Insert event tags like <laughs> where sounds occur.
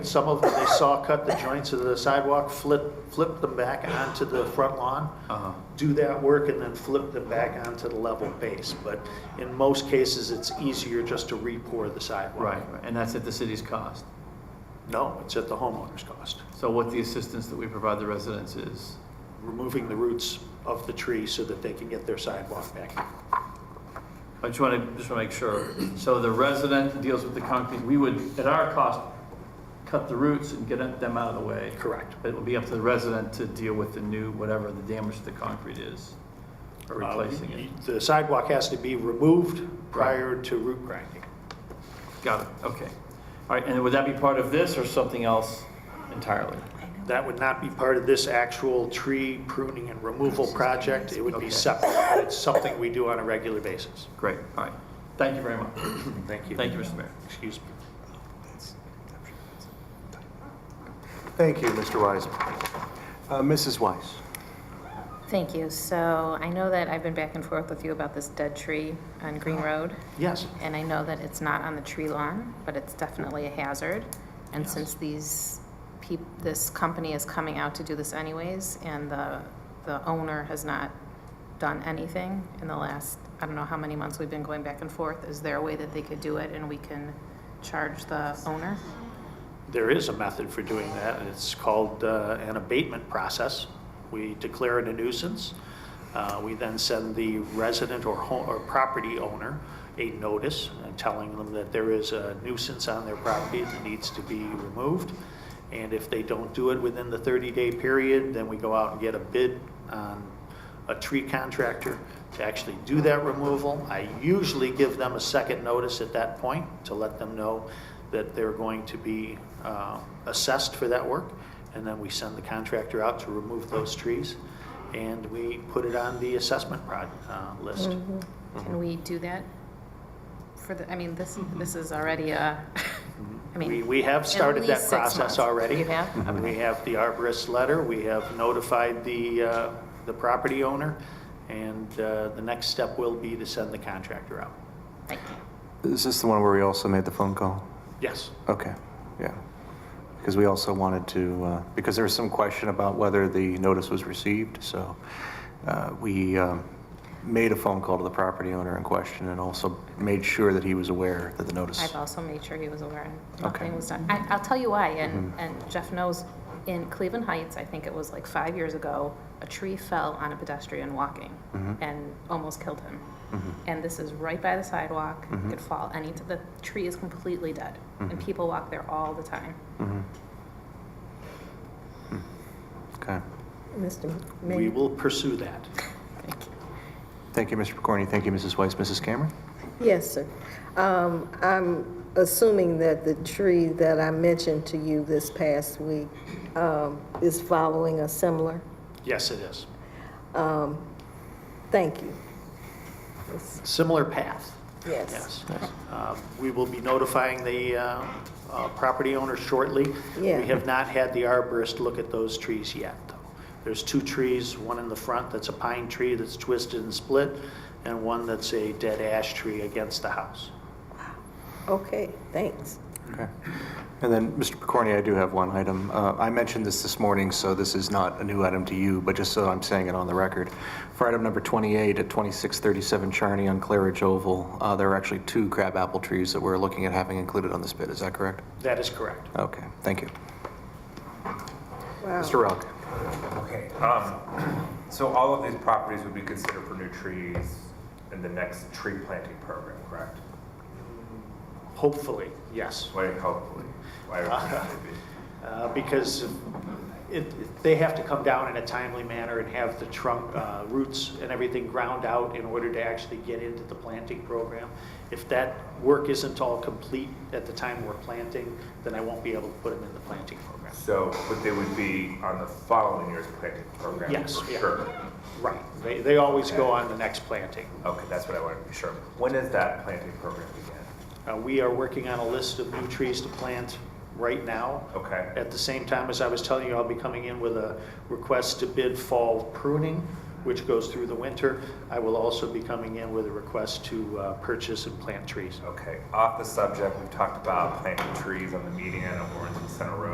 Some of them, they saw cut the joints of the sidewalk, flip, flip them back onto the front lawn, Uh-huh. do that work and then flip them back onto the level base. But in most cases, it's easier just to re-pour the sidewalk. Right, right, and that's at the city's cost. No, it's at the homeowner's cost. So what the assistance that we provide the residents is, Removing the roots of the tree so that they can get their sidewalk back. I just want to, just want to make sure. So the resident deals with the concrete, we would, at our cost, cut the roots and get them out of the way. Correct. But It will be up to the resident to deal with the new, whatever the damage to the concrete is, or Uh, replacing it. The sidewalk has to be removed prior to root grinding. Got it, okay. All right, and would that be part of this or something else entirely? That would not be part of this actual tree pruning and removal project. It would Okay. be separate. but It's something we do on a regular basis. Great, all right. Thank you very much. Mm-hmm. Thank you. Thank you, Mr. Mayor. Excuse me. Thank you, Mr. Wiseman. Uh, Mrs. Weiss? Thank you. So I know that I've been back and forth with you about this dead tree on Green Road, Yes. and I know that it's not on the tree lawn, but it's definitely a hazard. And since these peop, this company is coming out to do this anyways, and the, the owner has not done anything in the last, I don't know how many months we've been going back and forth, is there a way that they could do it and we can charge the owner? There is a method for doing that, and it's called uh, an abatement process. We declare it a nuisance. Uh, We then send the resident or ho or property owner a notice uh, telling them that there is a nuisance on their property that needs to be removed. And if they don't do it within the 30-day period, then we go out and get a bid on a tree contractor to actually do that removal. I usually give them a second notice at that point to let them know that they're going to be uh, assessed for that work. And then we send the contractor out to remove those trees and we put it on the assessment prod, uh, list. Mm-hmm. Can we do that? For the, I mean, this, this is already a, <laughs> I Mm-hmm. mean. We, we have started least that six process months. already. Mm-hmm. You have? We have the arborist letter, we have notified the, uh, the property owner, and uh, the next step will be to send the contractor out. Thank you. Is this the one where we also made the phone call? Yes. Okay, yeah. Because we also wanted to, uh, because there was some question about whether the notice was received, so uh, we um, made a phone call to the property owner in question and also made sure that he was aware that the notice. I've also made sure he was aware and Okay. nothing was done. I, I'll tell you why, Mm-hmm. and, and Jeff knows, in Cleveland Heights, I think it was like five years ago, a tree fell on a pedestrian walking Mm-hmm. and almost killed him. And this is right by the sidewalk, Mm-hmm. could fall any, the tree is completely dead, and people walk there all the time. Mm-hmm. Hmm. Okay. Mr. We Mayor? will pursue that. Thank you. Thank you, Mr. Corney. Thank you, Mrs. Weiss. Mrs. Cameron? Yes, sir. Um, I'm assuming that the tree that I mentioned to you this past week um, is following a similar, Yes, it is. thank you. Similar path, Yes. yes. Um, We will be notifying the uh, uh, property owner shortly. Yeah. We have not had the arborist look at those trees yet, though. There's two trees, one in the front that's a pine tree that's twisted and split, and one that's a dead ash tree against the house. Okay, thanks. Okay. And then, Mr. Picorni, I do have one item. Uh, I mentioned this this morning, so this is not a new item to you, but just so I'm saying it on the record. For item number 28 at 2637 Charney on Claridge Oval, uh, there are actually two crabapple trees that we're looking at having included on this bid. Is that correct? That is correct. Okay, thank you. Wow. Mr. Ralk? Okay, um, so all of these properties would be considered for new trees in the next tree planting program, correct? Hopefully, yes. Why, hopefully, why would they <laughs> be? uh, because it, they have to come down in a timely manner and have the trunk, uh, roots and everything ground out in order to actually get into the planting program. If that work isn't all complete at the time we're planting, then I won't be able to put them in the planting program. So, but they would be on the following year's planting program Yes, for yeah. sure? Right, they, they always go on the next planting. Okay, that's what I wanted to be sure. When does that planting program begin? Uh, we are working on a list of new trees to plant right now. Okay. At the same time, as I was telling you, I'll be coming in with a request to bid fall pruning, which goes through the winter. I will also be coming in with a request to uh, purchase and plant trees. Okay, off the subject, we've talked about planting trees on the median of Orange and Center Road.